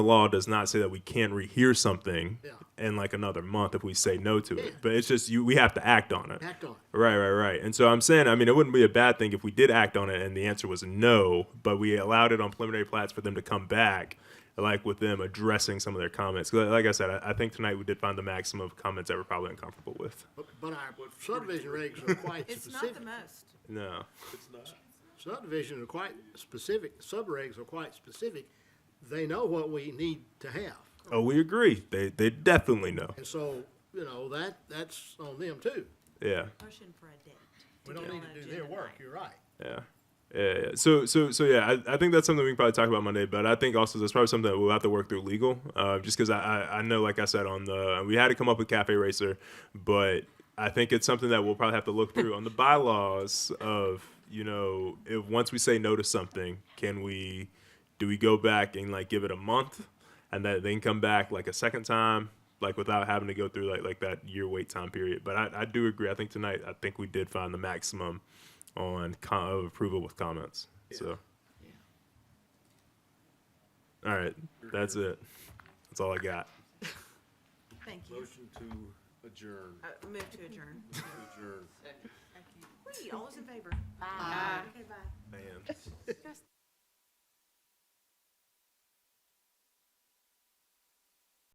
The law does not say that we can rehear something Yeah. in like another month if we say no to it. But it's just you we have to act on it. Act on it. Right, right, right. And so I'm saying, I mean, it wouldn't be a bad thing if we did act on it and the answer was no, but we allowed it on preliminary plats for them to come back, like with them addressing some of their comments. 'Cause Like I said, I, I think tonight we did find the maximum of comments that we're probably uncomfortable with. But, but our subdivision regs are quite It's not the specific. most. No. Subdivision are quite specific, subregs are quite specific. They know what we need to have. Oh, we agree. They, they definitely know. And so, you know, that, that's on them too. Yeah. Motion for a date. We to don't get need on to do an their agenda work, tonight. you're right. Yeah. Yeah, yeah. So, so, so, yeah. I, I think that's something we can probably talk about Monday. But I think also that's probably something that we'll have to work through legal, uh, just because I, I, I know, like I said, on the we had to come up with Cafe Racer, but I think it's something that we'll probably have to look through on the bylaws of you know if once we say no to something, can we do we go back and like give it a month and that then come back like a second time like without having to go through like like that year wait time period but i, I do agree i think tonight i think we did find the maximum on com- of approval with comments so all right that's it that's all i got Thank you. Motion to adjourn, Uh, Move to adjourn. adjourn. Wait, all those in favor? Aye. Okay, bye. man